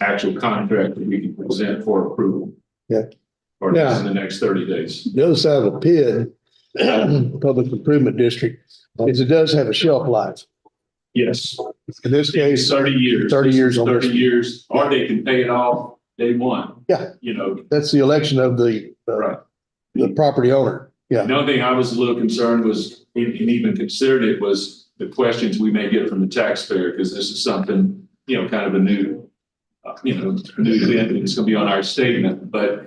actual contract that we can present for approval. Yeah. Or in the next thirty days. The other side of a PID, Public Improvement District, is it does have a shelf life. Yes. In this It's case, thirty years. 30 years on this. Thirty years, or they can pay it off day one. Yeah. You know, that's the election of the, uh, Right. the property owner. Yeah. another thing I was a little concerned was, and and even considered it was the questions we may get from the taxpayer, because this is something, you know, kind of a new, uh, you know, new thing, and it's gonna be on our statement, but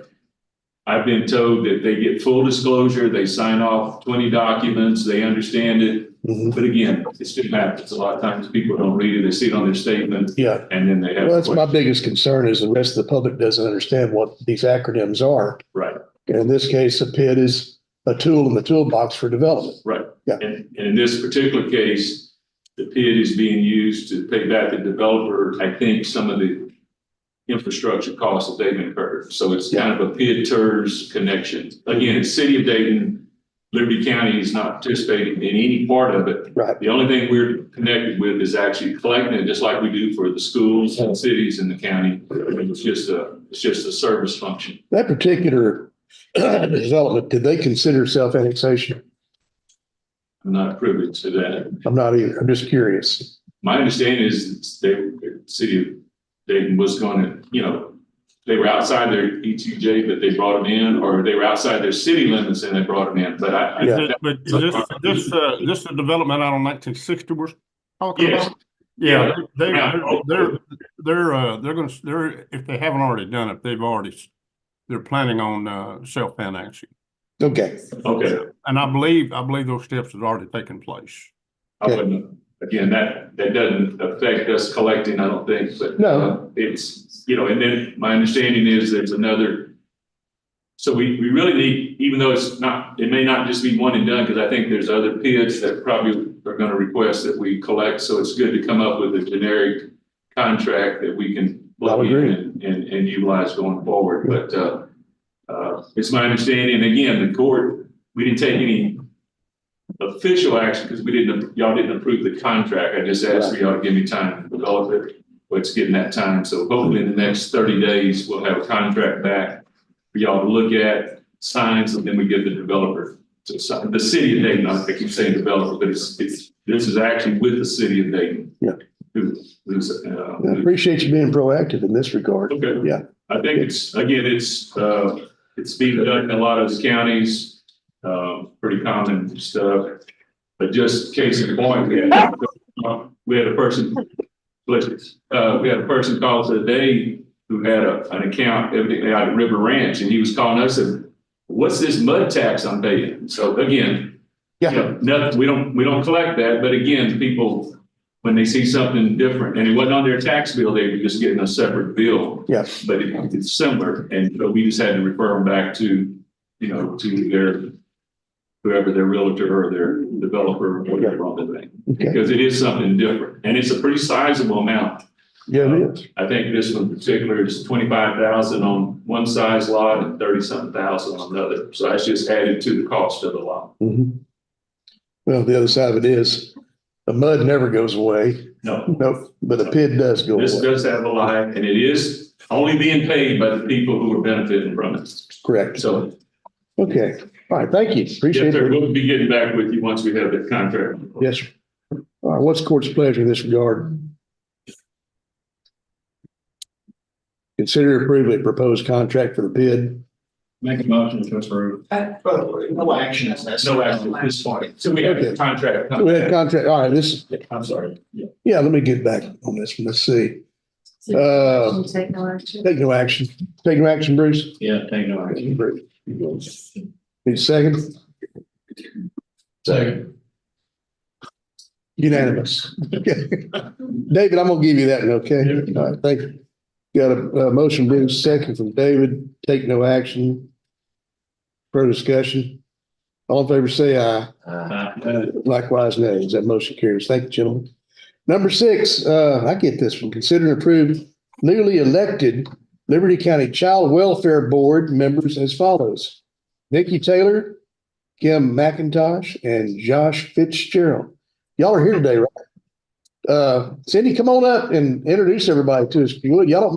I've been told that they get full disclosure, they sign off twenty documents, they understand it, Mhm. but again, it still happens. A lot of times people don't read it, they see it on their statement, Yeah. and then they have. Well, that's my questions. biggest concern is the rest of the public doesn't understand what these acronyms are. Right. In this case, a PID is a tool in the toolbox for development. And, and in this particular case, the PID is being used to pay back the developer, I think, some of the infrastructure costs that they've incurred. So it's kind of a PID TERS connection. Again, the city of Dayton, Liberty County is not participating in any part of it. Right. The only thing we're connected with is actually collecting it, just like we do for the schools and cities in the county. It's just a, it's just a service function. That particular development, did they consider self-annexation? I'm not privy to that. I'm not either. I'm just curious. My understanding is they, the city of Dayton was gonna, you know, they were outside their ETJ, but they brought them in, or they were outside their city limits and they brought them in, but I. I- Yeah. Is it, but is this, this, uh, this the development out on nineteen sixty we're talking Yes. about? Yeah, they, Yeah. they're, they're, they're, uh, they're gonna, s- they're, if they haven't already done it, they've already, s- they're planning on, uh, self-annexing. Okay. Okay, And I believe, I believe those steps have already taken place. I wouldn't, again, that, that doesn't affect us collecting, I don't think, but. No. uh, It's, you know, and then my understanding is there's another. So we, we really need, even though it's not, it may not just be one and done, because I think there's other PIDs that probably are gonna request that we collect, so it's good to come up with a generic contract that we can. I'll look in agree. And, and and utilize going forward, but, uh, uh, it's my understanding, again, the court, we didn't take any official action because we didn't, y'all didn't approve the contract. I just asked for y'all to give me time to develop it. But it's getting that time. So hopefully in the next thirty days, we'll have a contract back for y'all to look at, signs, and then we give the developer to sign. The city of Dayton, I keep saying developer, but it's, it's, this is actually with the city of Dayton. Yeah. Who, who's, uh, I appreciate you being proactive in this regard. Okay. Yeah. I think it's, again, it's, uh, it's being done in a lot of counties, uh, pretty common stuff. But just case in point, we had, we had a person, bless you, uh, we had a person call today who had a, an account evidently out at River Ranch, and he was calling us and, what's this mud tax I'm paying? So again, you Yeah. know, nothing, we don't, we don't collect that, but again, people, when they see something different, and it wasn't on their tax bill, they were just getting a separate bill Yeah. but it- it's similar, and so we just had to refer them back to, you know, to their, whoever their realtor or their developer, or whatever on the thing, Okay. because it is something different, and it's a pretty sizable amount. Yeah, it is. I think this one in particular is twenty-five thousand on one size lot and thirty-something thousand on another, so that's just added to the cost of the lot. Mhm. Well, the other side of it is the mud never goes away. No, Nope. But a PID does go this away. does have a line, and it is only being paid by the people who are benefiting from it, Correct. so Okay. All right. Thank you. Yes, Appreciate sir. it. We'll be getting back with you once we have that contract. Yes. sir. All right. What's court's pleasure in this regard? Consider approving a proposed contract for the PID. Make a motion to approve. Uh, No action is necessary. No action at this point. So we have the contract. We had contract. All right. This, I'm sorry. Yeah. yeah, let me get back on this one. Let's see. Uh, Should take no action. take no action. Take no action, Bruce. Yeah, thank you. Need a second? Second. Unanimous. Okay. David, I'm gonna give you that, one, okay? All right, thank you. Got a, uh motion, Bruce, second from David, take no action. Further discussion. All in favor, say aye. Uh, Likewise, nays. That motion carries. Thank you, gentlemen. Number six, uh, I get this one. Consider and approve newly elected Liberty County Child Welfare Board members as follows. Nikki Taylor, Kim McIntosh, and Josh Fitzgerald. Y'all are here today, right? Uh, Cindy, come on up and introduce everybody to us if you would. Y'all don't